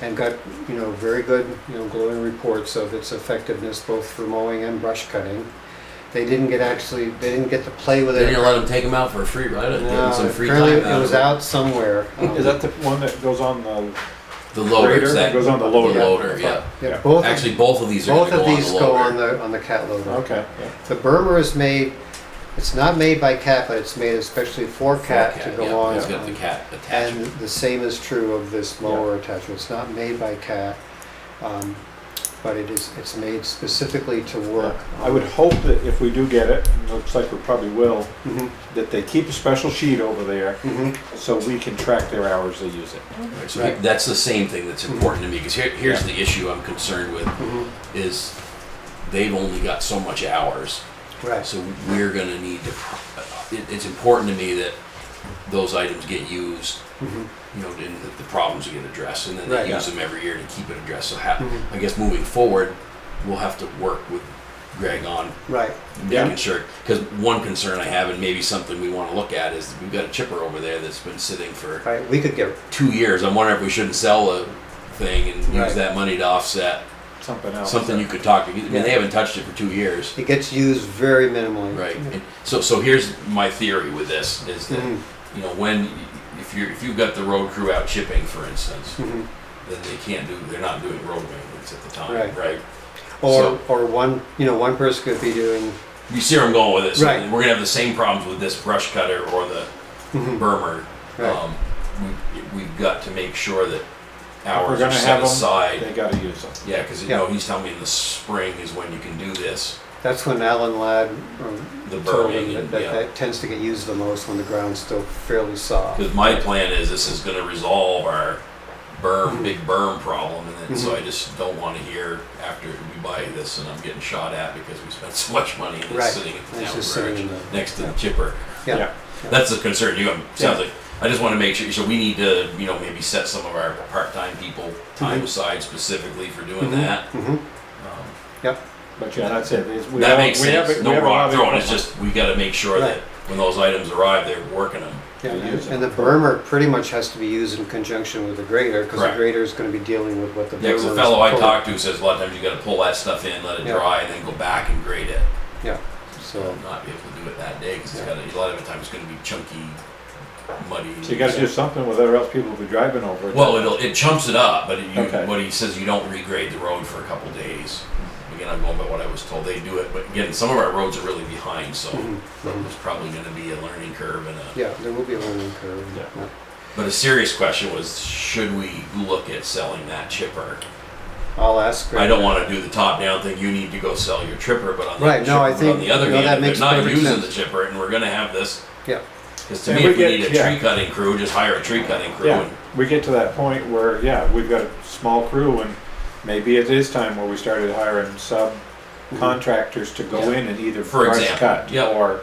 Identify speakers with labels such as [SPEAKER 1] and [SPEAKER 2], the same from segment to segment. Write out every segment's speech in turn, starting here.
[SPEAKER 1] and got, you know, very good, you know, glowing reports of its effectiveness both for mowing and brush cutting. They didn't get actually, they didn't get to play with
[SPEAKER 2] They
[SPEAKER 1] it.
[SPEAKER 2] didn't let them take them out for a free ride. and give
[SPEAKER 1] No,
[SPEAKER 2] them some free time. uh,
[SPEAKER 1] apparently
[SPEAKER 2] out
[SPEAKER 1] it was
[SPEAKER 2] of
[SPEAKER 1] out somewhere. Um,
[SPEAKER 3] Is that the one that goes on the
[SPEAKER 2] The loader.
[SPEAKER 3] grader?
[SPEAKER 2] That,
[SPEAKER 3] Goes on the
[SPEAKER 2] the
[SPEAKER 3] loader.
[SPEAKER 2] loader. Yeah.
[SPEAKER 1] Yeah, both,
[SPEAKER 2] Actually, both of these are
[SPEAKER 1] both
[SPEAKER 2] gonna
[SPEAKER 1] of
[SPEAKER 2] go
[SPEAKER 1] these
[SPEAKER 2] on the
[SPEAKER 1] go
[SPEAKER 2] loader.
[SPEAKER 1] on the, on the cat loader.
[SPEAKER 3] Okay. yeah.
[SPEAKER 1] The Burma is made, it's not made by cat, but it's made especially for cat to
[SPEAKER 2] yeah.
[SPEAKER 1] go on.
[SPEAKER 2] It's got the cat
[SPEAKER 1] And
[SPEAKER 2] attachment.
[SPEAKER 1] the same is true of this mower attachment. It's not made by cat, um, but it is, it's made specifically to work.
[SPEAKER 3] I would hope that if we do get it, and it looks like we probably will,
[SPEAKER 1] Mhm,
[SPEAKER 3] that they keep a special sheet over there
[SPEAKER 1] mhm.
[SPEAKER 3] so we can track their hours they use it.
[SPEAKER 2] Right, so that's the same thing that's important to me because here, here's the issue I'm concerned with
[SPEAKER 1] Mhm.
[SPEAKER 2] is they've only got so much hours,
[SPEAKER 1] Right,
[SPEAKER 2] so we're going to need to. pro- It, it's important to me that those items get used,
[SPEAKER 1] mhm,
[SPEAKER 2] you know, and that the problems get addressed, and then
[SPEAKER 1] Right,
[SPEAKER 2] they use
[SPEAKER 1] yeah.
[SPEAKER 2] them every year to keep it addressed. So ha-
[SPEAKER 1] Mhm.
[SPEAKER 2] I guess moving forward, we'll have to work with Greg on
[SPEAKER 1] right,
[SPEAKER 3] Yeah.
[SPEAKER 2] making sure. Because one concern I have, and maybe something we want to look at, is we've got a chipper over there that's been sitting for
[SPEAKER 1] right. We could get,
[SPEAKER 2] two years. I'm wondering if we shouldn't sell the thing and
[SPEAKER 1] Right.
[SPEAKER 2] use that money to offset
[SPEAKER 3] Something else.
[SPEAKER 2] something you could talk to. I mean,
[SPEAKER 1] Yeah.
[SPEAKER 2] they haven't touched it for two years,
[SPEAKER 1] it gets used very minimally.
[SPEAKER 2] right? And so, so here's my theory with this: is that
[SPEAKER 1] Mhm,
[SPEAKER 2] you know when if you if you've got the road crew out chipping, for instance,
[SPEAKER 1] mhm.
[SPEAKER 2] then they can't do they're not doing road maintenance at the time,
[SPEAKER 1] Right.
[SPEAKER 2] right?
[SPEAKER 1] Or,
[SPEAKER 2] So-
[SPEAKER 1] or one, you know, one person could be doing,
[SPEAKER 2] You see where I'm going with this?
[SPEAKER 1] Right.
[SPEAKER 2] We're gonna have the same problems with this brush cutter or the
[SPEAKER 1] mhm,
[SPEAKER 2] Burmer.
[SPEAKER 1] Right.
[SPEAKER 2] Um, we, we've got to make sure that
[SPEAKER 3] we're
[SPEAKER 2] hours
[SPEAKER 3] gonna
[SPEAKER 2] are
[SPEAKER 3] have
[SPEAKER 2] set
[SPEAKER 3] 'em,
[SPEAKER 2] aside.
[SPEAKER 3] They gotta use them.
[SPEAKER 2] Yeah, because you
[SPEAKER 1] Yeah.
[SPEAKER 2] know he's telling me in the spring is when you can do this.
[SPEAKER 1] that's when Alan Ladd um,
[SPEAKER 2] The
[SPEAKER 1] told me
[SPEAKER 2] burning,
[SPEAKER 1] that,
[SPEAKER 2] and,
[SPEAKER 1] that
[SPEAKER 2] yeah.
[SPEAKER 1] that tends to get used the most when the ground's still fairly soft.
[SPEAKER 2] Because my plan is this is going to resolve our berm,
[SPEAKER 3] Mm-hmm.
[SPEAKER 2] big berm problem, and then so
[SPEAKER 1] Mhm.
[SPEAKER 2] I just don't want to hear after we buy this and I'm getting shot at because we spent so much money and
[SPEAKER 1] Right.
[SPEAKER 2] it's sitting at the
[SPEAKER 1] It's
[SPEAKER 2] town
[SPEAKER 1] just sitting
[SPEAKER 2] garage
[SPEAKER 1] in the-
[SPEAKER 2] next to
[SPEAKER 1] yeah.
[SPEAKER 2] the chipper.
[SPEAKER 1] Yeah,
[SPEAKER 2] That's the concern. You I'm- sounds like I just want to make sure. So we need to you know maybe set some of our part-time people time
[SPEAKER 3] Mm-hmm.
[SPEAKER 1] Mhm.
[SPEAKER 2] aside specifically for doing
[SPEAKER 1] Mhm.
[SPEAKER 2] that.
[SPEAKER 1] hmm
[SPEAKER 2] Um,
[SPEAKER 1] yep,
[SPEAKER 3] But yeah, that's it. It's- we
[SPEAKER 2] That
[SPEAKER 3] have-
[SPEAKER 2] makes
[SPEAKER 3] we have
[SPEAKER 2] sense.
[SPEAKER 3] it- we
[SPEAKER 2] no
[SPEAKER 3] have a lot
[SPEAKER 2] rock
[SPEAKER 3] of
[SPEAKER 2] throwing. It's
[SPEAKER 3] equipment.
[SPEAKER 2] just we got to make sure that
[SPEAKER 1] Right.
[SPEAKER 2] when those items arrive, they're working them.
[SPEAKER 1] yeah,
[SPEAKER 3] They use
[SPEAKER 1] and the
[SPEAKER 3] it.
[SPEAKER 1] bermer pretty much has to be used in conjunction with the grader, because the
[SPEAKER 2] Correct.
[SPEAKER 1] grader is gonna be dealing with what the
[SPEAKER 2] Yeah,
[SPEAKER 1] bermer is.
[SPEAKER 2] because the fellow I
[SPEAKER 1] pulling.
[SPEAKER 2] talked to says a lot of times you got to pull that stuff in, let it
[SPEAKER 1] Yeah.
[SPEAKER 2] dry, and then go back and grade it.
[SPEAKER 1] Yeah,
[SPEAKER 2] You'll
[SPEAKER 1] so,
[SPEAKER 2] not be able to do it that day because
[SPEAKER 1] Yeah.
[SPEAKER 2] got a lot of the time it's going to be chunky, muddy.
[SPEAKER 3] So you gotta do something with it or else people will be driving over it.
[SPEAKER 2] Well, it'll it chumps it up, but it, you,
[SPEAKER 3] Okay.
[SPEAKER 2] what he says you don't regrade the road for a couple days. Again, I'm going by what I was told. They do it, but again, some of our roads are really behind, so
[SPEAKER 3] Mm-hmm.
[SPEAKER 1] mhm, mhm.
[SPEAKER 2] there's probably going to be a learning curve and a.
[SPEAKER 1] yeah, there will be a learning curve.
[SPEAKER 3] Yeah.
[SPEAKER 2] But a serious question was, should we look at selling that chipper?
[SPEAKER 1] I'll ask.
[SPEAKER 2] I
[SPEAKER 1] Greg.
[SPEAKER 2] don't want to do the top-down thing. You need to go sell your chipper, but on the,
[SPEAKER 1] Right,
[SPEAKER 2] chipper,
[SPEAKER 1] no, I
[SPEAKER 2] but
[SPEAKER 1] think-
[SPEAKER 2] on the other
[SPEAKER 1] no, that
[SPEAKER 2] hand,
[SPEAKER 1] makes
[SPEAKER 2] if they're not
[SPEAKER 1] perfect
[SPEAKER 2] using
[SPEAKER 1] sense.
[SPEAKER 2] the chipper, and we're going to have this.
[SPEAKER 1] Yeah,
[SPEAKER 2] Because to
[SPEAKER 3] And
[SPEAKER 2] me,
[SPEAKER 3] we
[SPEAKER 2] if we
[SPEAKER 3] get-
[SPEAKER 2] need a
[SPEAKER 3] yeah.
[SPEAKER 2] tree cutting crew, just hire a tree cutting crew.
[SPEAKER 3] Yeah,
[SPEAKER 2] And,
[SPEAKER 3] we get to that point where, yeah, we've got a small crew and maybe it is time where we started hiring subcontractors to go
[SPEAKER 2] Yeah.
[SPEAKER 3] in and either
[SPEAKER 2] For
[SPEAKER 3] brush
[SPEAKER 2] example,
[SPEAKER 3] cut
[SPEAKER 2] yeah.
[SPEAKER 3] or,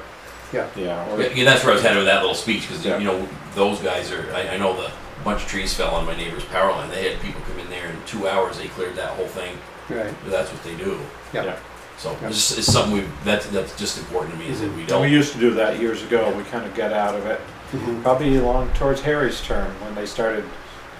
[SPEAKER 1] Yeah.
[SPEAKER 3] yeah,
[SPEAKER 2] yeah,
[SPEAKER 3] or,
[SPEAKER 2] yeah, that's where I was headed with that little speech because
[SPEAKER 3] Yeah.
[SPEAKER 2] you know those guys are. I, I know the a bunch of trees fell on my neighbor's power line. They had people come in there in two hours. They cleared that whole thing.
[SPEAKER 1] right,
[SPEAKER 2] But that's what they do.
[SPEAKER 1] Yeah.
[SPEAKER 3] Yeah.
[SPEAKER 2] So
[SPEAKER 1] Yeah.
[SPEAKER 2] it's, just- it's something we that's that's just important to me is that we
[SPEAKER 3] and
[SPEAKER 2] don't.
[SPEAKER 3] we used to do that years ago, we kind of got out of it.
[SPEAKER 1] mhm.
[SPEAKER 3] Probably along towards Harry's term, when they started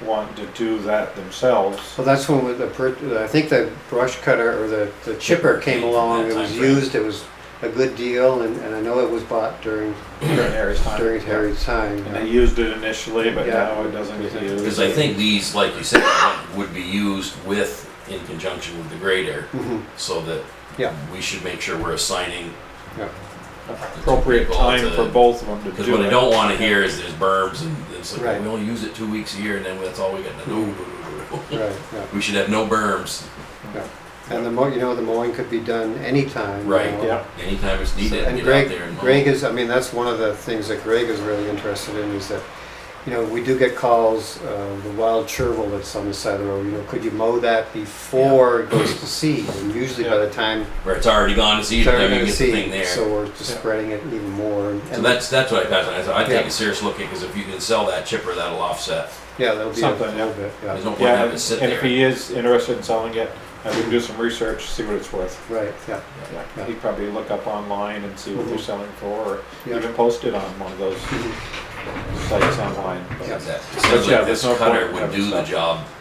[SPEAKER 3] wanting to do that themselves.
[SPEAKER 1] Well, that's when with the, per- I think the brush cutter or the, the chipper came along,
[SPEAKER 2] That
[SPEAKER 1] it was
[SPEAKER 2] timeframe.
[SPEAKER 1] used, it was a good deal, and, and I know it was bought during,
[SPEAKER 3] During Harry's time.
[SPEAKER 1] during Harry's time.
[SPEAKER 3] And they used it initially, but
[SPEAKER 1] Yeah.
[SPEAKER 3] now it doesn't get used.
[SPEAKER 2] Because I think these, like you said, would be used with, in conjunction with the grader,
[SPEAKER 1] Mhm,
[SPEAKER 2] so that
[SPEAKER 1] Yeah.
[SPEAKER 2] we should make sure we're assigning,
[SPEAKER 1] yeah.
[SPEAKER 3] Appropriate time for both of them to do it.
[SPEAKER 2] because what I don't wanna hear is there's berms and it's
[SPEAKER 1] Right.
[SPEAKER 2] like, we only use it two weeks a year and then that's all we got to do.
[SPEAKER 1] Right, yeah,
[SPEAKER 2] We should have no berms
[SPEAKER 1] yeah. And the mo, you know, the mowing could be done anytime. you
[SPEAKER 2] Right,
[SPEAKER 1] know.
[SPEAKER 3] Yeah,
[SPEAKER 2] anytime it's
[SPEAKER 1] So-
[SPEAKER 2] needed, get
[SPEAKER 1] And
[SPEAKER 2] out
[SPEAKER 1] Greg,
[SPEAKER 2] there and mow.
[SPEAKER 1] Greg is, I mean, that's one of the things that Greg is really interested in is that, you know, we do get calls, uh, the wild chervil that's on the side of the road, you know, could you mow that before it goes to seed? And usually by
[SPEAKER 3] Yeah.
[SPEAKER 1] the time
[SPEAKER 2] Where it's already gone to seed,
[SPEAKER 1] it's
[SPEAKER 2] by the
[SPEAKER 1] already
[SPEAKER 2] time
[SPEAKER 1] gonna
[SPEAKER 2] you get the thing
[SPEAKER 1] seed,
[SPEAKER 2] there.
[SPEAKER 1] so we're just
[SPEAKER 3] Yeah.
[SPEAKER 1] spreading it even more. and-
[SPEAKER 2] So that's, that's what I passed on, I said, I
[SPEAKER 1] Yeah.
[SPEAKER 2] take a serious look at, because if you can sell that chipper, that'll offset,
[SPEAKER 1] Yeah, that'll be a
[SPEAKER 3] Something,
[SPEAKER 1] little
[SPEAKER 3] yeah.
[SPEAKER 1] bit,
[SPEAKER 2] there's
[SPEAKER 1] yeah,
[SPEAKER 2] no point
[SPEAKER 3] yeah,
[SPEAKER 2] having
[SPEAKER 3] and
[SPEAKER 2] it sit
[SPEAKER 3] and if
[SPEAKER 2] there.
[SPEAKER 3] he is interested in selling it, I can do some research, see what it's worth.
[SPEAKER 1] right, yeah, Yeah.
[SPEAKER 3] Yeah, Mm-hmm. he'd probably look up online and see what they're selling for, or
[SPEAKER 1] Yeah.
[SPEAKER 3] even post it on one of those sites online. but-
[SPEAKER 1] Yeah.
[SPEAKER 2] Exactly.
[SPEAKER 3] But yeah,
[SPEAKER 2] Essentially,
[SPEAKER 3] there's
[SPEAKER 2] this
[SPEAKER 3] no point
[SPEAKER 2] cutter would
[SPEAKER 3] having
[SPEAKER 2] do the
[SPEAKER 3] stuff.
[SPEAKER 2] job